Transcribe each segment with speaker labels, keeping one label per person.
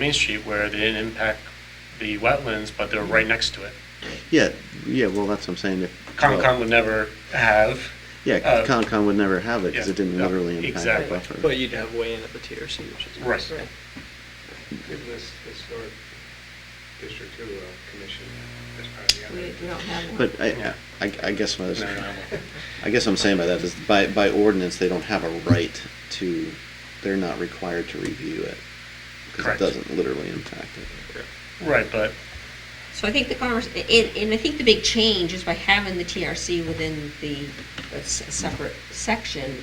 Speaker 1: Main Street where they didn't impact the wetlands, but they're right next to it.
Speaker 2: Yeah, yeah, well, that's what I'm saying, if.
Speaker 1: Concom would never have,
Speaker 2: Yeah,
Speaker 1: uh,
Speaker 2: Concom would never have it, because
Speaker 1: yeah,
Speaker 2: it didn't
Speaker 1: no,
Speaker 2: literally impact
Speaker 1: exactly.
Speaker 2: the
Speaker 3: But
Speaker 2: buffer.
Speaker 3: you'd have weigh-in at the TRC, which is.
Speaker 1: Right.
Speaker 3: nice.
Speaker 4: Give this historic district two a commission as part of the
Speaker 5: We,
Speaker 4: other.
Speaker 5: we don't have one.
Speaker 2: But I, I, I guess what I
Speaker 1: no,
Speaker 2: was,
Speaker 1: no, no.
Speaker 2: I guess what I'm saying by that is by, by ordinance, they don't have a right to, they're not required to review it. Because it
Speaker 1: Correct.
Speaker 2: doesn't literally impact it.
Speaker 1: right, but
Speaker 5: So I think the convers, and, and I think the big change is by having the TRC within the, that's a separate section,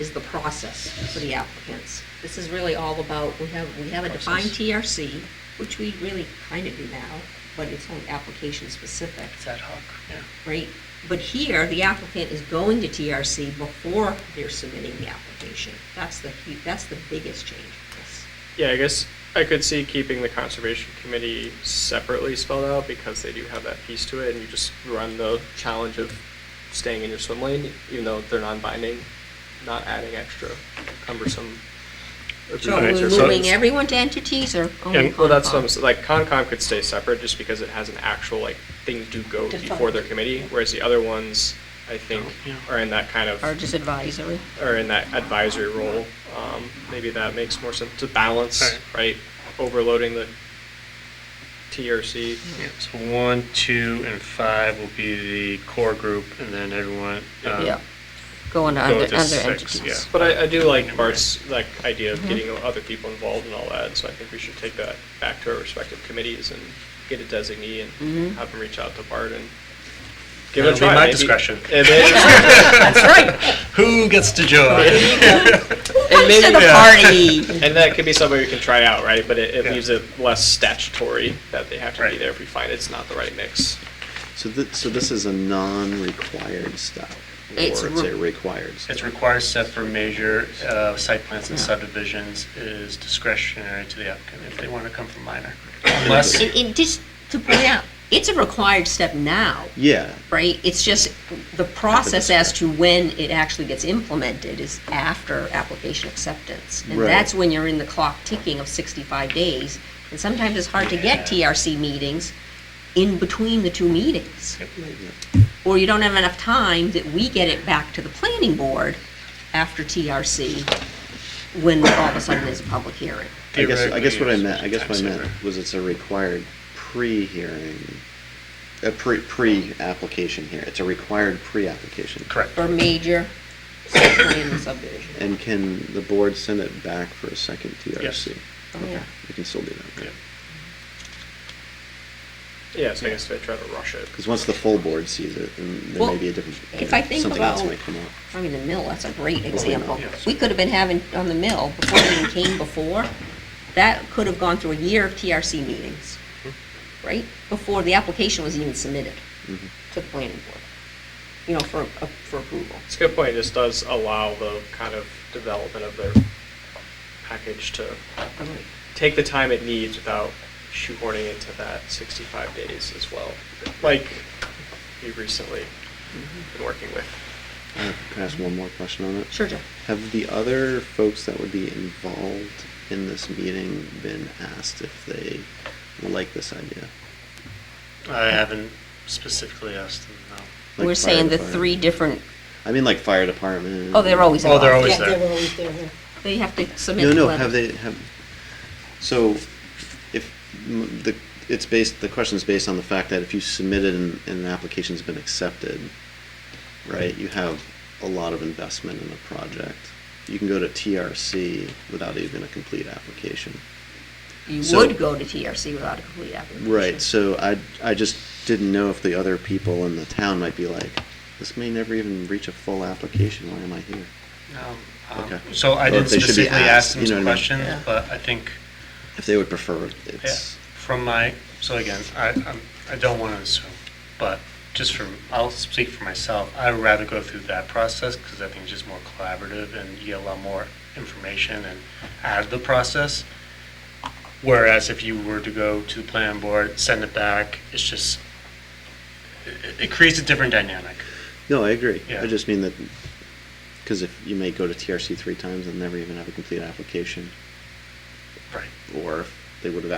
Speaker 5: is the process for the applicants. This is really all about, we have, we have a defined
Speaker 1: Process.
Speaker 5: TRC, which we really kind of do now, but it's only application specific,
Speaker 1: it's ad hoc, yeah.
Speaker 5: right? But here, the applicant is going to TRC before they're submitting the application. That's the, hu- that's the biggest change for this.
Speaker 3: Yeah, I guess I could see keeping the conservation committee separately spelled out because they do have that piece to it and you just run the challenge of staying in your swim lane, even though they're non-binding, not adding extra cumbersome.
Speaker 5: So
Speaker 1: Okay,
Speaker 3: agreements
Speaker 5: we're
Speaker 3: or
Speaker 1: so-
Speaker 5: moving
Speaker 3: something.
Speaker 5: everyone to entities or only
Speaker 3: And, well, that's, what I'm
Speaker 5: Concom?
Speaker 3: s- like, Concom could stay separate just because it has an actual, like, things do go before their committee, whereas the other ones, I think,
Speaker 1: Yeah.
Speaker 3: are in that kind of.
Speaker 5: Or just advisory?
Speaker 3: or in that advisory role, um, maybe that makes more sense to balance, right? Overloading the TRC.
Speaker 1: Yeah, So one, two, and five will be the core group, and then everyone, um,
Speaker 6: Yeah, going to
Speaker 1: go
Speaker 6: under,
Speaker 1: to
Speaker 6: under
Speaker 1: six, yeah.
Speaker 6: entities.
Speaker 3: But I, I do like Bart's, like, idea of getting other people involved and all that, so I think we should take that back to our respective committees and get a designee and have them reach out to Bart and give it a
Speaker 1: That'll be
Speaker 3: try.
Speaker 1: my
Speaker 3: maybe-
Speaker 1: discretion.
Speaker 3: And then-
Speaker 6: That's right.
Speaker 1: Who gets to join?
Speaker 6: And maybe the party.
Speaker 3: And that could be something we can try out, right? But it, it
Speaker 1: Yeah.
Speaker 3: leaves it less statutory that they have to be
Speaker 1: Right.
Speaker 3: there if we find it's not the right mix.
Speaker 2: So this, so this is a non-required stop, or
Speaker 5: It's
Speaker 2: it's
Speaker 5: re-
Speaker 2: a required stop.
Speaker 1: It's required set for major uh, site plans and subdivisions is discretionary to the applicant if they want to come from minor. Unless,
Speaker 5: And, and just to point out, it's a required step now,
Speaker 2: Yeah,
Speaker 5: right? It's just the process as to when it actually gets implemented is after application acceptance. And
Speaker 2: Right.
Speaker 5: that's when you're in the clock ticking of 65 days. And sometimes it's hard to get TRC meetings in between the two meetings. Or you don't have enough time that we get it back to the planning board after TRC when all of a sudden there's a public hearing.
Speaker 2: I guess, I guess what I
Speaker 1: Theoretically,
Speaker 2: meant, I guess what I
Speaker 1: time
Speaker 2: meant was it's a required pre-hearing, a pre, pre-application here, it's a required pre-application.
Speaker 1: correct.
Speaker 5: Or major site plan and subdivision.
Speaker 2: And can the board send it back for a second TRC?
Speaker 5: Oh,
Speaker 2: Okay,
Speaker 5: yeah.
Speaker 2: we can still do that,
Speaker 1: Yeah.
Speaker 3: Yeah, so I guess if I try to rush it.
Speaker 2: because once the full board sees it, then there
Speaker 5: Well,
Speaker 2: may be a different,
Speaker 5: if I think
Speaker 2: something else
Speaker 5: about-
Speaker 2: might come up.
Speaker 5: I mean, the mill, that's a great example.
Speaker 1: yes.
Speaker 5: We could have been having on the mill before it even came before. That could have gone through a year of TRC meetings,
Speaker 1: Mm-hmm.
Speaker 5: right? Before the application was even submitted to the planning board, you know, for, uh, for approval.
Speaker 3: It's a good point. This does allow the kind of development of their package to take the time it needs without shoehorning it to that 65 days as well, like we recently been working with.
Speaker 2: Uh, Can I ask one more question on it?
Speaker 5: Sure, Jeff.
Speaker 2: Have the other folks that would be involved in this meeting been asked if they like this idea?
Speaker 1: I haven't specifically asked them, no.
Speaker 2: Like
Speaker 5: We're
Speaker 2: fire
Speaker 5: saying the
Speaker 2: department?
Speaker 5: three different,
Speaker 2: I mean, like fire department.
Speaker 5: oh, they're always
Speaker 1: Oh,
Speaker 5: involved.
Speaker 1: they're always
Speaker 5: Yeah,
Speaker 1: there.
Speaker 5: They have to submit
Speaker 2: No,
Speaker 5: the
Speaker 2: no.
Speaker 5: letter.
Speaker 2: Have they have? So, if m- the it's based, the question's based on the fact that if you submitted and, and an application's been accepted, right? You have a lot of investment in a project. You can go to TRC without even a complete application.
Speaker 5: You
Speaker 2: so-
Speaker 5: would go to TRC without a complete application.
Speaker 2: Right. So I I just didn't know if the other people in the town might be like, this may never even reach a full application. Why am I here?
Speaker 1: No, um,
Speaker 2: Okay.
Speaker 1: So I
Speaker 2: Or
Speaker 1: didn't
Speaker 2: if they should be
Speaker 1: specifically ask
Speaker 2: asked,
Speaker 1: them
Speaker 2: you know
Speaker 1: some
Speaker 2: what I mean?
Speaker 1: questions, but I think,
Speaker 2: If they would prefer,
Speaker 1: yeah,
Speaker 2: it's
Speaker 1: from my, so again, I, I'm- I don't want to assume, but just from, I'll speak for myself, I'd rather go through that process because I think it's just more collaborative and you get a lot more information and out of the process. Whereas if you were to go to the planning board, send it back, it's just, it- it creates a different dynamic.
Speaker 2: No, I agree.
Speaker 1: Yeah.
Speaker 2: I just mean that, because if you may go to TRC three times and never even have a complete application,
Speaker 1: Right.
Speaker 2: or if they would have